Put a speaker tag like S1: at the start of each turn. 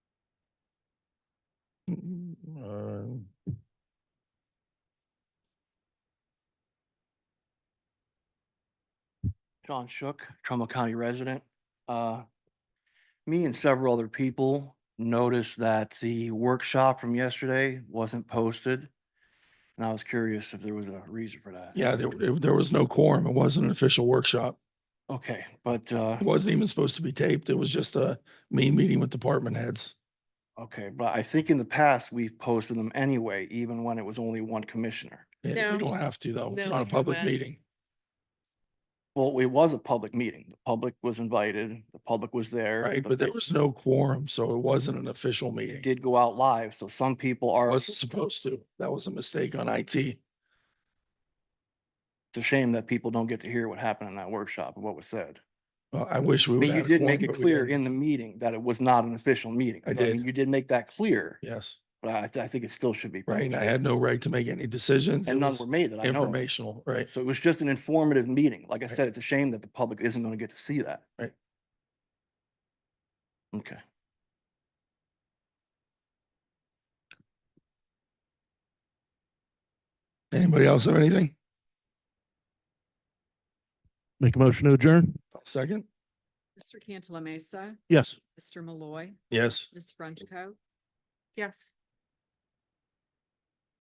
S1: Sean Shook, Trumbull County resident. Uh, Me and several other people noticed that the workshop from yesterday wasn't posted. And I was curious if there was a reason for that.
S2: Yeah, there, it- there was no quorum. It wasn't an official workshop.
S1: Okay, but, uh,
S2: It wasn't even supposed to be taped. It was just a me meeting with department heads.
S1: okay, but I think in the past, we've posted them anyway, even when it was only one commissioner.
S2: Yeah,
S3: No.
S2: We don't have to though. It's
S3: No,
S2: not a
S3: we
S2: public
S3: don't.
S2: meeting.
S1: Well, it was a public meeting. The public was invited, the public was there.
S2: Right,
S1: the
S2: but there
S1: thing
S2: was no quorum, so it wasn't an official meeting. It
S1: Did go out live, so some people are, it's
S2: Wasn't supposed to. That was a mistake on IT.
S1: a shame that people don't get to hear what happened in that workshop and what was said.
S2: Well, I wish we.
S1: But
S2: would
S1: you
S2: have had a
S1: did
S2: quorum,
S1: make it
S2: but we
S1: clear
S2: didn't.
S1: in the meeting that it was not an official meeting.
S2: I
S1: So, mean,
S2: did.
S1: You did make that clear,
S2: Yes,
S1: but I, I think it still should be.
S2: right. And I
S1: posted.
S2: had no right to make any decisions. It
S1: And none
S2: was
S1: were made that I know. of.
S2: Informational, right.
S1: So it was just an informative meeting. Like I
S2: Right.
S1: said, it's a shame that the public isn't going to get to see that.
S2: Right.
S1: Okay.
S2: Anybody else have anything?
S4: Make a motion to adjourn?
S2: Second?
S5: Mr. Cantala Mesa,
S4: Yes.
S5: Mr. Malloy,
S2: Yes.
S5: Ms. Frenchco. Yes.